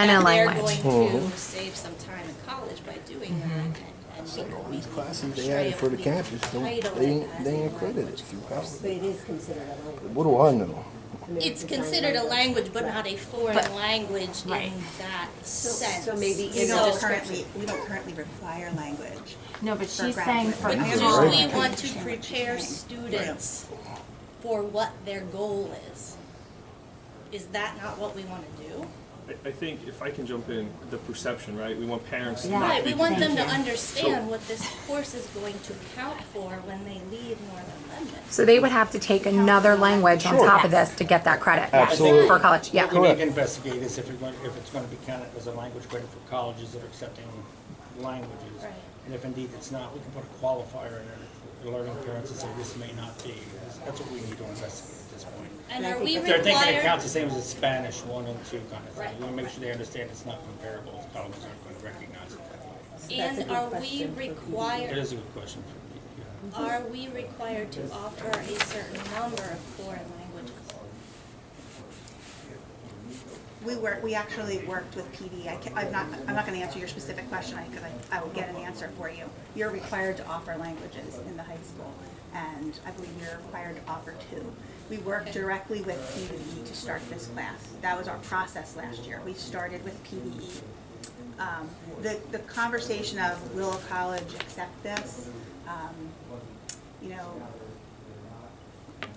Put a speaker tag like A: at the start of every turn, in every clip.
A: And
B: that they're
A: language.
B: going to save some time in college by doing that and- and make
C: All
B: what we
C: these classes they added for the campus, don't- they ain't, they ain't credited through
D: But
C: college.
D: it is considered a language.
C: What do I know?
D: I mean,
B: It's
D: a design
B: considered a
D: language.
B: language, but not a foreign
A: But-
B: language
A: Right.
B: in that sense.
D: so maybe
E: We
D: in
B: So-
D: the
E: don't currently, we don't currently require language.
A: No, but
E: For
A: she's saying
E: graduate.
A: for
B: But
C: Yeah,
B: do we
C: right.
B: want to
E: Understand what she's
B: prepare
E: saying.
B: students for what their goal is? Is that not what we want to do?
F: I, I think if I can jump in, the perception, right? We want parents to
A: Yeah.
F: not
B: Right,
F: be
B: we want them to
F: confused.
B: understand what this course is going to count for when they leave Northern Lebanon.
G: So they would have to take another language on top of this to get that credit.
C: Absolutely.
G: For college, yeah.
H: What we need
C: Correct.
H: to investigate is if you're going, if it's gonna be counted as a language credit for colleges that are accepting languages.
B: Right.
H: And if indeed it's not, we can put a qualifier in there, alerting parents and say this may not be. That's- That's what we need to investigate at this point.
B: And are we
H: If they're thinking it
B: required,
H: counts the same as a Spanish one and two kind of
B: Right.
H: thing, we wanna make sure they understand it's not comparable, if colleges aren't gonna recognize it that way.
D: That's a
B: and
D: good
B: are we
D: question for
H: That
B: required,
H: is a good question for me, yeah.
B: are we required to offer a certain number of foreign languages?
E: We work, we actually worked with PD. I am not, I'm not gonna answer your specific question, because I, I will get an answer for you. You're required to offer languages in the high school, and I believe you're required to offer two. We worked directly with PDE to start this class. That was our process last year. We started with PDE. Um, the, the conversation of will a college accept this, um, you know,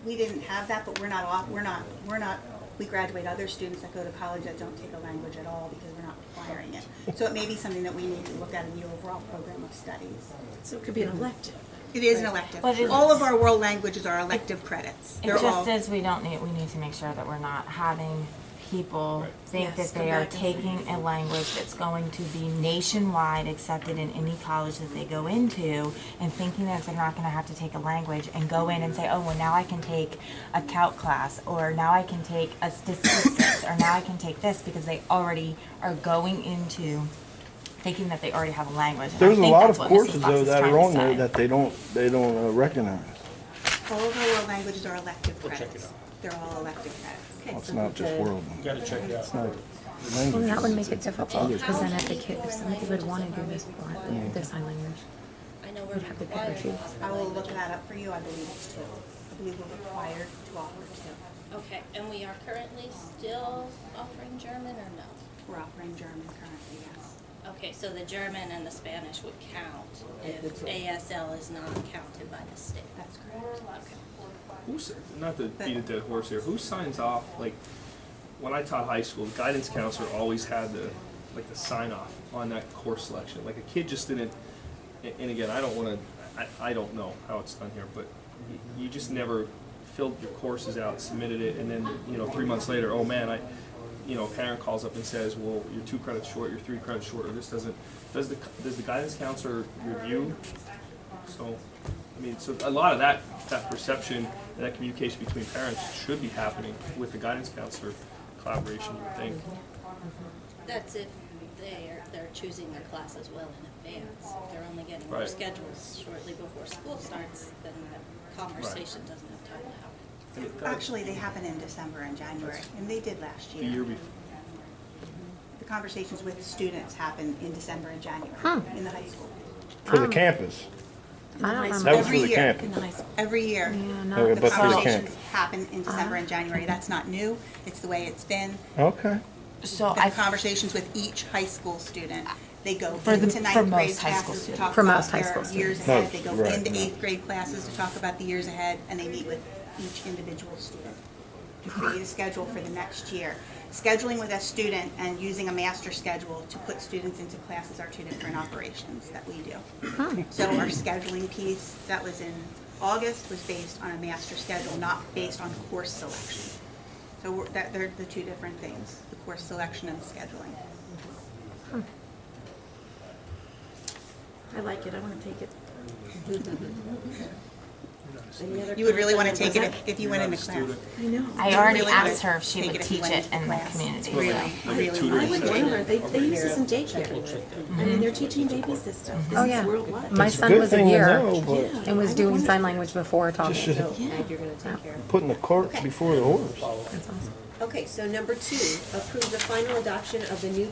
E: we didn't have that, but we're not off, we're not, we're not, we graduate other students that go to college that don't take a language at all because we're not requiring it. So it may be something that we need to look at in the overall program of studies.
D: So it could be an elective.
E: It is an elective.
A: But it-
E: All of our world languages are elective credits.
A: It
E: They're all,
A: just says we don't need, we need to make sure that we're not having people think that
D: Yes,
A: they
D: go
A: are
D: back and say
A: taking a language that's going to be nationwide accepted in any college that they go into and thinking that they're not gonna have to take a language and go in and say, oh, well, now I can take a calc class, or now I can take a statistics, or now I can take this, because they already are going into thinking that they already have a language. And I
C: There's a
A: think
C: lot of
A: that's what Mrs.
C: courses
A: Fox
C: though
A: is
C: that
A: trying
C: are
A: to
C: on there
A: say.
C: that they don't, they don't uh, recognize.
E: all of our world languages are elective
H: check it
E: credits.
H: out.
E: They're all elective credits.
D: Okay,
C: It's
D: so
C: not just
D: the-
C: world
H: You gotta check it out.
G: Well, that would make
C: languages.
G: it difficult, because then if the kid, if somebody would want to do this, for the sign language.
B: I know we're required to offer
E: I will look
B: languages.
E: that up for you. I believe it's two. I believe we're required to offer two.
B: Okay, and we are currently still offering German or no?
E: We're offering German currently, yes.
B: Okay, so the German and the Spanish would count if ASL is not counted by the state.
E: That's correct.
F: Who's, not to beat a dead horse here, who signs off, like, when I taught high school, the guidance counselor always had the, like, the sign off on that course selection. Like, a kid just didn't, a- and again, I don't wanna, I, I don't know how it's done here, but y- you just never filled your courses out, submitted it, and then, you know, three months later, oh man, I, you know, a parent calls up and says, well, you're two credits short, you're three credits short, or this doesn't, does the, does the guidance counselor review so, I mean, so a lot of that, that perception, and that communication between parents should be happening with the guidance counselor collaboration, you would think.
B: That's if they're, they're choosing their classes well in advance. If they're only getting their
F: Right.
B: schedules shortly before school starts, then that conversation doesn't have time to happen.
F: And it does.
E: Actually, they happen in December and January, and they did last
F: The year before,
E: The conversations with students happen in December and January in the high school.
C: For
D: Um,
C: the campus.
G: I don't remember.
C: That was for
E: Every
C: the
E: year.
D: In
C: campus.
D: the high school.
E: Every year,
G: Yeah, not
C: Okay,
G: the
C: but for the
G: college.
C: campus.
E: conversations happen in December
A: Ah.
E: and January. That's not new. It's the way it's been.
C: Okay.
A: So
E: The
A: I
E: conversations with each high school student, they go
A: For the-
E: into
A: for
E: ninth
A: most
E: grade
A: high
E: classes
A: school
E: to
A: students.
E: talk
G: For
E: about
G: most high
E: their
G: school
E: years
G: students.
E: ahead. They
C: Most,
E: go
C: right,
E: into
C: yeah.
E: eighth grade classes to talk about the years ahead, and they meet with each individual student to create a schedule for the next year. Scheduling with a student and using a master schedule to put students into classes are two different operations that we do. So our scheduling piece that was in August was based on a master schedule, not based on course selection. So we're- that, they're the two different things, the course selection and scheduling.
D: I like it, I want to take it. Any other
E: You would really want to
D: comments
E: take
D: on
E: it if- if you went into class.
D: that? I know.
A: I
E: You
A: already
E: really
A: asked
E: wanna
A: her if she
E: take
A: would
E: if
A: teach
E: went
A: it
E: into
A: in the
E: class.
A: community.
E: Really,
A: so.
F: like a
E: really
F: tutoring
D: I would blame
F: session.
D: her, they, they use this in daycare. I mean, they're teaching baby systems,
G: Oh,
D: this
G: yeah.
D: is worldwide.
G: My
C: It's a
G: son
C: good
G: was a
C: thing to
G: year
C: know, but
G: and was doing sign language before
C: just
G: talking.
C: should-
D: Yeah, you're gonna take care of
C: putting the cart before the horse.
G: That's awesome.
D: Okay, so number two, approve the final adoption of the new